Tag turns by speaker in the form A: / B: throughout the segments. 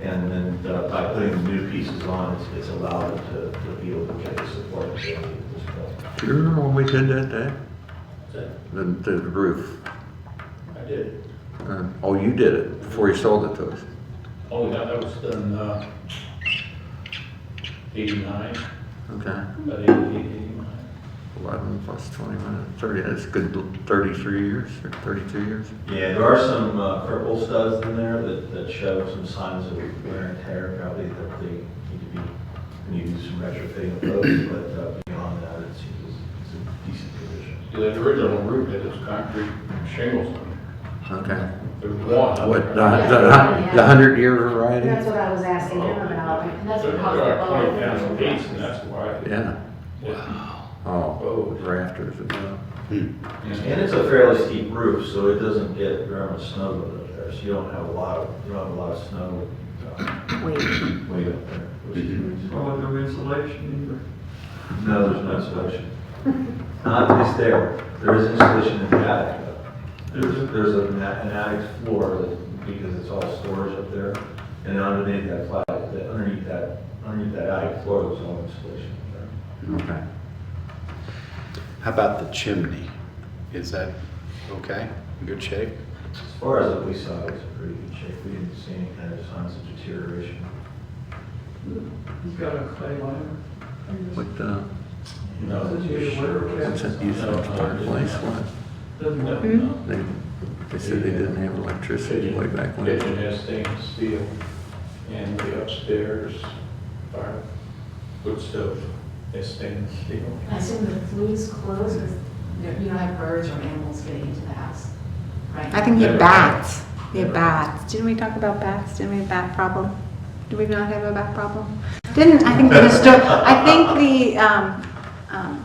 A: And uh, by putting the new pieces on, it's- it's allowed it to to be able to get the support that they need at this point.
B: Do you remember when we did that day?
A: So,
B: The, the roof?
A: I did.
B: Uh, Oh, you did it before you sold it to us.
A: Oh, yeah, that was done, uh, eighty-nine,
B: Okay.
A: about eighty-nine.
B: Eleven plus twenty minutes, thirty, that's a good thirty-three years or thirty-two years.
A: Yeah, there are some uh, purple studs in there that, that show some signs of wear and tear, probably that they need to be, we need to do some retrofitting of those, but uh, beyond that, it's, it's it's a decent condition.
C: Yeah, The original roof had this concrete shingles on
B: Okay.
C: it. There was one.
B: What, the, the, the hundred year
D: That's
B: variety?
D: what I was asking him about, and that's
C: There
D: what
C: there
D: caused
C: are twenty thousand
D: the
C: feet, and
D: bubble.
C: that's why.
B: Yeah. Oh, rafters and, uh,
A: And it's a fairly steep roof, so it doesn't get very much snow load up there, so you don't have a lot of, you don't have a lot of snow uh,
D: Wait,
A: way up there. which is-
E: Well, no insulation
A: No, there's no insulation. Not at least there. There is insulation in the attic. though. There's, there's an a- an attic floor that, because it's all storage up there. And underneath that flat, that- underneath that, underneath that attic floor, there's no insulation up there.
B: okay.
F: How about the chimney? Is that okay? In good shape?
A: As far as what we saw, it was in pretty good shape. We didn't see any kind of signs of deterioration.
E: either. He's got a clay liner.
B: What, uh,
A: No,
E: Does he have a water cap?
B: what's that used to replace what?
E: Doesn't
C: No,
E: work.
C: no.
B: They, they said they didn't have electricity way back when.
C: Kitchen has stainless steel, and the upstairs, fire, wood stove, is stainless steel.
D: I assume the flues close, because you don't have birds or animals getting into the house, right?
G: I think he had
C: Never.
G: bats. He had
C: Never.
G: bats. Didn't we talk about bats? Didn't we have bat problem? Did we not have a bat problem? Didn't, I think the, histo- I think the, um, um,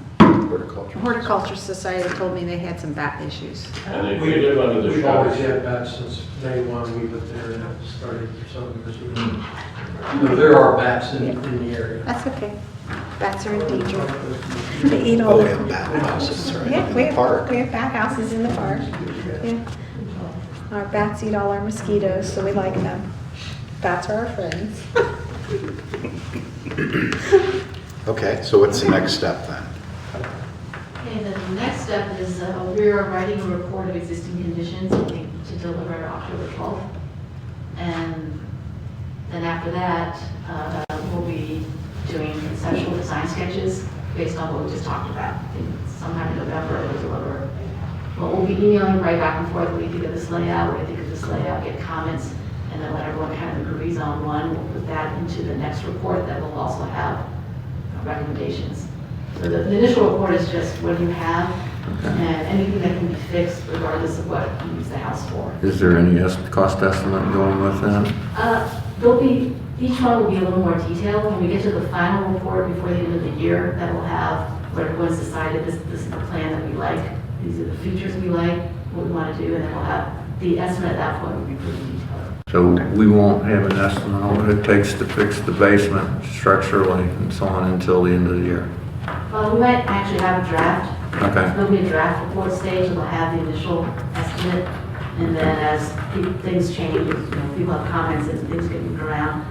F: Horticulture?
G: Horticulture Society told me they had some bat issues.
C: And they, we live under the
E: We've always
C: shop.
E: had that since day one we lived there and it started for some years. No, There are bats in, in the area.
G: That's okay. Bats are endangered. They eat all
F: Oh, we
G: the.
F: have bat houses, right?
G: Yeah,
F: in
G: we
F: the
G: have,
F: park.
G: we have bat houses in the park. Yeah. Our bats eat all our mosquitoes, so we like them. Bats are our friends.
F: Okay, so what's the next step then?
D: Okay, then the next step is, uh, we are writing a report of existing conditions I think, to deliver October 12th. And then after that, uh, we'll be doing conceptual design sketches based on what we just talked about. I think Sometime in November, we'll deliver. But we'll be emailing right back and forth, what do you think of this layout, what do you think of this layout, get comments, and then let everyone kind of agrees on one. We'll put that into the next report that will also have recommendations. So the the initial report is just what you have and anything that can be fixed regardless of what you use the house for.
B: Is there any est- cost estimate going with that?
D: Uh, There'll be, each one will be a little more detailed. When we get to the final report before the end of the year, that will have what everyone's decided, this, this is the plan that we like, these are the features we like, what we want to do, and then we'll have, the estimate at that point will be pretty detailed.
B: So we won't have an estimate on what it takes to fix the basement structurally and so on until the end of the year.
D: Uh, We might actually have a draft
B: Okay,
D: There'll be a draft report stage, and we'll have the initial estimate, and then as pe- things change, you know, people have comments and things get moved around,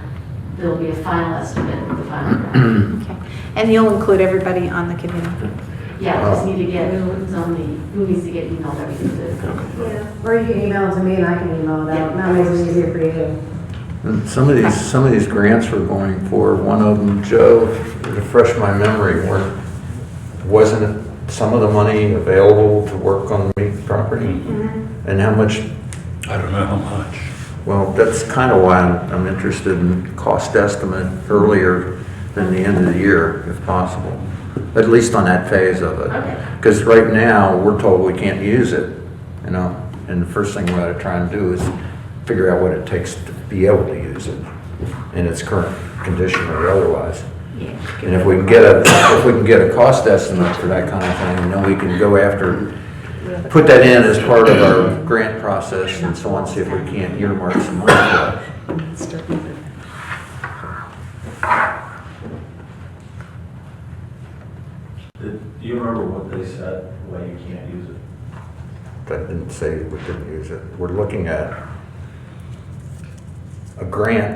D: there'll be a final estimate, the final draft.
G: Okay. And you'll include everybody on the committee?
D: Yeah, we just need to get, who's on the, who needs to get emailed everything to this.
H: Or you can email it to me and I can email it out, that makes it easier for you.
B: And some of these, some of these grants we're going for, one of them, Joe, to refresh my memory, were, wasn't some of the money available to work on the property? And how much,
I: I don't know how much.
B: well, that's kind of why I'm I'm interested in cost estimate earlier than the end of the year, if possible, at least on that phase of it.
D: Okay.
B: Because right now, we're told we can't use it, you know, and the first thing we ought to try and do is figure out what it takes to be able to use it in its current condition or otherwise. And if we can get a, if we can get a cost estimate for that kind of thing, then we can go after, put that in as part of our grant process and so on, see if we can't earmark some money for it.
A: Did- Do you remember what they said, why you can't use it?
B: I didn't say we couldn't use it. We're looking at a grant